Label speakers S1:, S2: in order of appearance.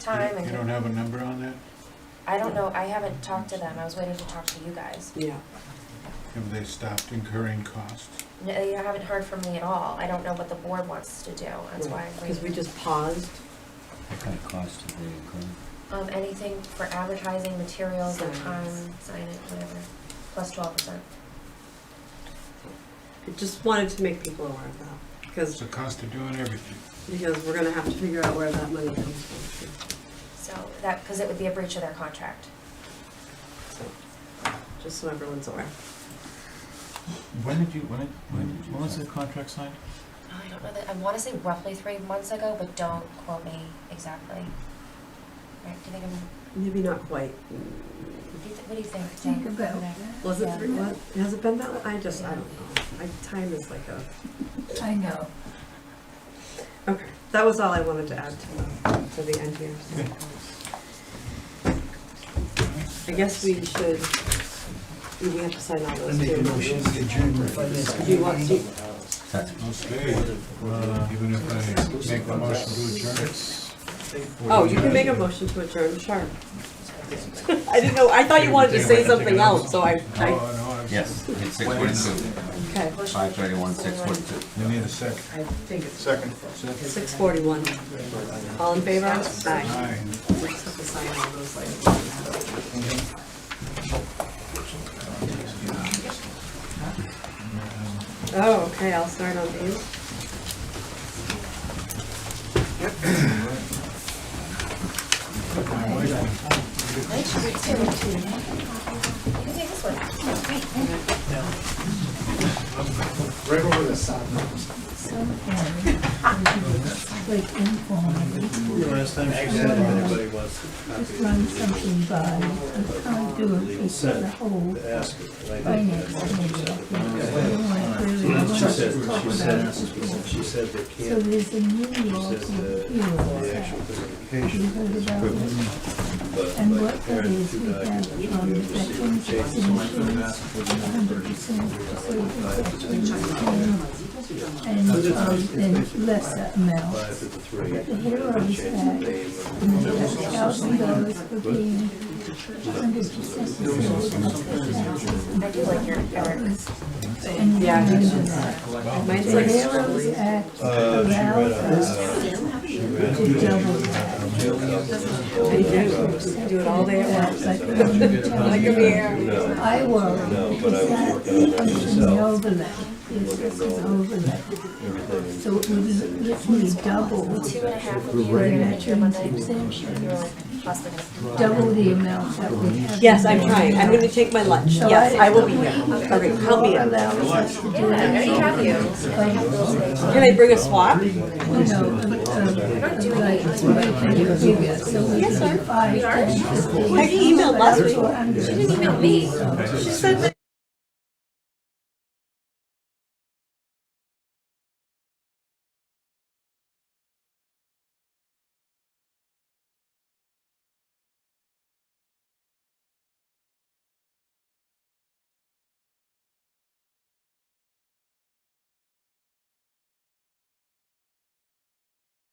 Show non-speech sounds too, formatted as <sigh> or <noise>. S1: time
S2: You
S1: and,
S2: don't have a number on that?
S1: I don't know, I haven't talked to them, I was waiting to talk to you guys.
S3: Yeah,
S2: Have they stopped incurring costs?
S1: No, You haven't heard from me at all, I don't know what the board wants to do, that's why I'm
S3: because we
S1: waiting.
S3: just paused.
S4: What kind of cost did they incur?
S1: Um, anything for advertising, materials, or time,
S3: Signs.
S1: signage, whatever, plus twelve percent.
S3: I just wanted to make people aware of that,
S2: It's
S3: because,
S2: the cost of doing everything.
S3: because we're gonna have to figure out where that money comes from.
S1: So that, because it would be a breach of their contract.
S3: So, Just so everyone's aware.
S5: When did you, when, did-
S4: When did
S5: when,
S4: you
S5: when was
S4: sign?
S5: the contract signed?
S1: I don't know that, I want to say roughly three months ago, but don't quote me exactly. Right, do you think I'm,
S3: Maybe not quite.
S1: do you thi- what do you think?
S6: Think
S1: Dan?
S6: about
S1: Okay.
S6: that.
S3: Was it
S1: Yeah.
S3: three, what, has it been that, long? I just, I don't know. My time is like a,
S6: I know.
S3: okay, that was all I wanted to add to the, to the end here. so. I guess we should, we have to sign all those too. Do you want, do you-
S2: Okay, uh, even if I make a motion to adjourn,
S3: Oh, you can make a motion to adjourn, sure. <laughs> I didn't know, I thought you wanted to say something else, so I,
S2: Oh, no,
S3: I,
S2: no, I-
S4: Yes, it's six forty-two,
S3: okay,
S4: five thirty-one, six forty-two.
S2: you need a second.
S5: Second.
S3: six forty-one. All in favor? Aye.
S2: Aye.
S3: We just have to sign all those later. Oh, okay, I'll start on these.
S1: You can take this one.
S6: Sometimes, it's like informal,
S7: Last time she said anybody wants
S6: just run something by, you can't do it for the whole
S7: to ask it, and I didn't.
S6: finance committee. I think. You want to really want
S7: She said, she said, she
S6: to talk about it.
S7: said they
S6: So
S7: can't,
S6: there's a new law
S7: says
S6: to
S7: uh, the-
S6: appeal
S7: the
S6: that.
S7: actual
S6: You
S7: certification,
S6: heard about it?
S7: but.
S6: And
S7: but
S6: what that
S7: parents
S6: is,
S7: who
S6: we
S7: died
S6: have
S7: should be
S6: um,
S7: able to see
S6: veterans
S7: the changes.
S6: insurance, hundred percent and um, then lesser
S7: But
S6: amounts.
S7: if it's a three, they
S6: The heroes
S7: change the
S6: act,
S7: name of
S6: thousand dollars for being hundred
S1: I do like your, your
S6: And
S3: Yeah, I think
S6: then
S3: Mine's
S6: the
S3: like
S6: heroes
S3: scribbly.
S6: act
S7: Uh, she read
S6: allows us to double that.
S3: I do, do it all day at once.
S6: But when you tell
S3: Like a
S6: me,
S3: mirror.
S6: I worry, because that is an overlay, is this is overlay. So it would literally double
S1: two and a half of you were gonna make your Monday hospital.
S6: double the amount that we have.
S3: Yes, I'm trying, I'm gonna take my lunch, yes, I will be here. Okay, help me out.
S1: Yeah, I already have you.
S3: Can I bring a swap?
S6: You know, um, um, like, like, bigger, so we can buy.
S3: I emailed last week.
S1: You didn't email me.
S3: She said that